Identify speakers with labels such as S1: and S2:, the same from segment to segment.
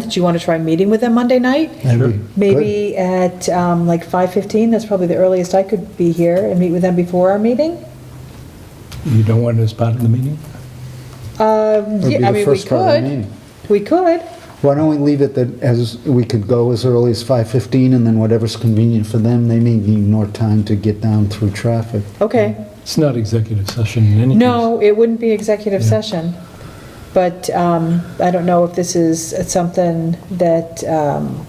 S1: Did you want to try meeting with them Monday night?
S2: Maybe.
S1: Maybe at um, like 5:15, that's probably the earliest I could be here and meet with them before our meeting?
S2: You don't want it as part of the meeting?
S1: Um,
S3: Would be
S1: yeah, I
S3: the
S1: mean, we
S3: first part of the
S1: could.
S3: meeting.
S1: We could.
S3: Why don't we leave it that as, we could go as early as 5:15, and then whatever's convenient for them, they may need more time to get down through traffic.
S1: Okay.
S2: It's not executive session in any case.
S1: No, it wouldn't be executive
S2: Yeah.
S1: session. But um, I don't know if this is something that um,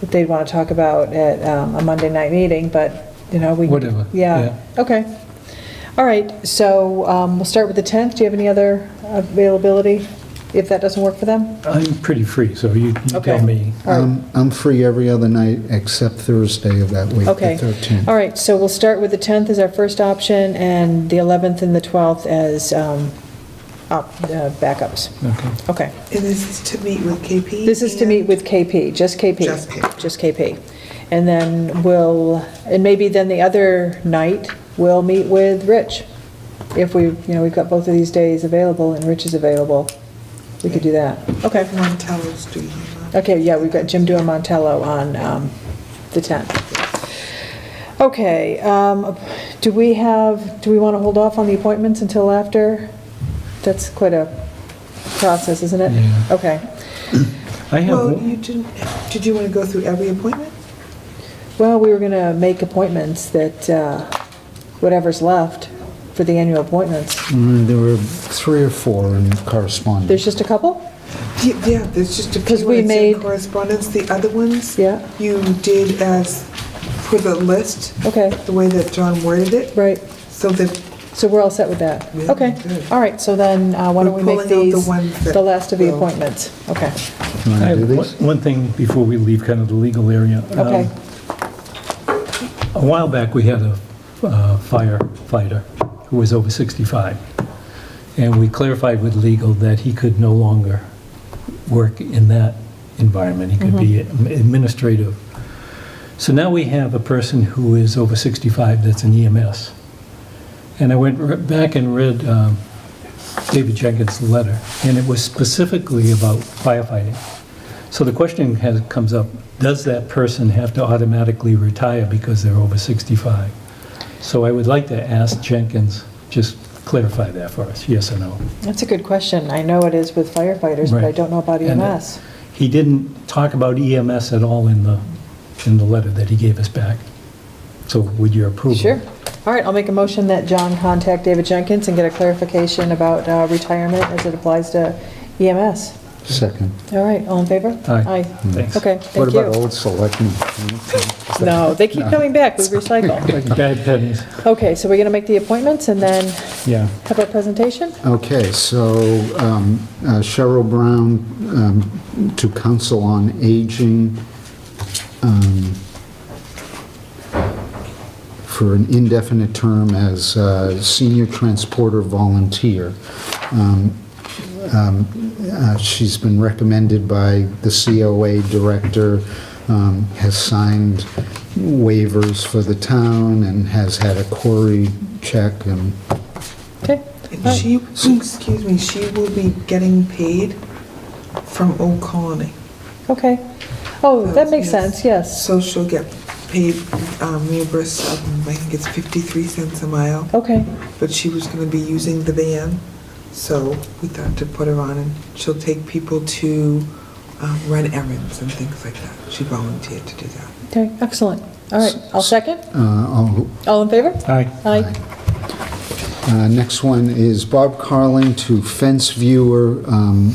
S1: that they'd want to talk about at um, a Monday night meeting, but, you know, we.
S2: Whatever,
S1: Yeah, okay. All right, so um, we'll start with the 10th. Do you have any other availability, if that doesn't work for them?
S2: I'm pretty free, so you you
S1: Okay.
S2: tell me.
S1: All right.
S3: I'm, I'm free every other night except Thursday of that week, the
S1: Okay.
S3: 13th.
S1: All right, so we'll start with the 10th as our first option, and the 11th and the 12th as um, op- uh, backups.
S2: Okay.
S1: Okay.
S4: And this is to meet with KP?
S1: This is to meet with KP, just KP.
S4: Just KP.
S1: Just KP. And then we'll, and maybe then the other night, we'll meet with Rich. If we, you know, we've got both of these days available and Rich is available, we could do that. Okay.
S4: and Montello Street.
S1: Okay, yeah, we've got Jim Duamontello on um, the 10th. Okay, um, do we have, do we want to hold off on the appointments until after? That's quite a process, isn't it?
S2: Yeah.
S1: Okay.
S2: I have,
S4: Well,
S2: one-
S4: you didn't, did you want to go through every appointment?
S1: Well, we were going to make appointments that, uh, whatever's left for the annual appointments.
S3: Mm, There were three or four in correspondence.
S1: There's just a couple?
S4: Ye- Yeah, there's just a
S1: 'Cause
S4: few
S1: we
S4: ones in
S1: made-
S4: correspondence, the other ones.
S1: Yeah.
S4: You did as, for the list,
S1: Okay,
S4: the way that John worded it,
S1: right.
S4: so that
S1: So we're all set with that?
S4: Yeah,
S1: Okay,
S4: good.
S1: all right, so then uh, why don't we
S4: We're
S1: make
S4: pulling out the
S1: these
S4: ones that
S1: the last of the
S4: will-
S1: appointments? Okay,
S3: You
S2: I
S3: wanna do
S2: have one
S3: these?
S2: one thing before we leave kind of the legal area. Um,
S1: okay,
S2: A while back, we had a uh, firefighter who was over 65, and we clarified with legal that he could no longer work in that environment. He could be administrative. So now we have a person who is over 65 that's an EMS. And I went r- back and read um, David Jenkins' letter, and it was specifically about firefighting. So the question has, comes up, does that person have to automatically retire because they're over 65? So I would like to ask Jenkins, just clarify that for us, yes or no?
S1: that's a good question. I know it is with firefighters, but I
S2: Right.
S1: don't know about E
S2: And, uh,
S1: EMS.
S2: He didn't talk about EMS at all in the, in the letter that he gave us back. So would your approval?
S1: Sure. All right, I'll make a motion that John contact David Jenkins and get a clarification about uh, retirement as it applies to EMS.
S3: Second.
S1: All right, all in favor?
S2: Aye.
S1: Aye.
S2: Thanks.
S1: Okay, thank you.
S3: What about old selectmen?
S1: No, they keep coming back, we recycle.
S2: Bad pennies.
S1: Okay, so we're going to make the appointments and then
S2: Yeah.
S1: have our presentation?
S3: Okay, so um, uh, Cheryl Brown um, to Council on Aging um, for an indefinite term as uh, senior transporter volunteer. Um, um, uh, She's been recommended by the COA director, um, has signed waivers for the town, and has had a query check and
S1: Okay,
S4: and she, excuse me, she will be getting paid from Old Colony.
S1: okay. Oh, that makes
S4: Yes.
S1: sense, yes.
S4: So she'll get paid, um, reimbursed, um, I think it's 53 cents a mile.
S1: Okay,
S4: but she was going to be using the van, so we thought to put her on, and she'll take people to um, run errands and things like that. She volunteered to do that.
S1: okay, excellent. All right, I'll second.
S3: uh, all
S1: All in favor?
S2: Aye.
S1: Aye.
S3: Uh, Next one is Bob Carling to fence viewer um,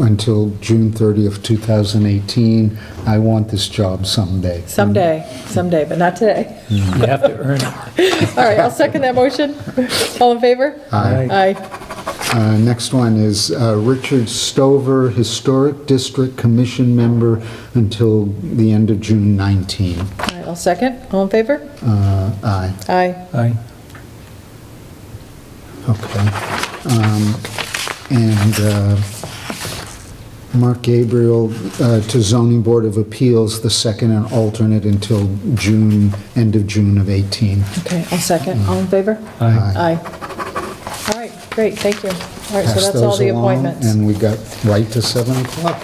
S3: until June 30th, 2018. I want this job someday.
S1: Someday, someday, but not today.
S2: You have to earn it.
S1: All right, I'll second that motion. All in favor?
S2: Aye.
S1: Aye.
S3: Uh, Next one is uh, Richard Stover, Historic District Commission member until the end of June 19.
S1: All right, I'll second. All in favor?
S3: Uh, Aye.
S1: Aye.
S2: Aye.
S3: Okay. Um, And uh, Mark Gabriel uh, to Zoning Board of Appeals, the second and alternate until June, end of June of 18.
S1: Okay, I'll second. All in favor?
S2: Aye.
S1: Aye. All right, great, thank you. All right, so
S3: Pass
S1: that's all
S3: those
S1: the
S3: along,
S1: appointments.
S3: And we got right to 7 o'clock.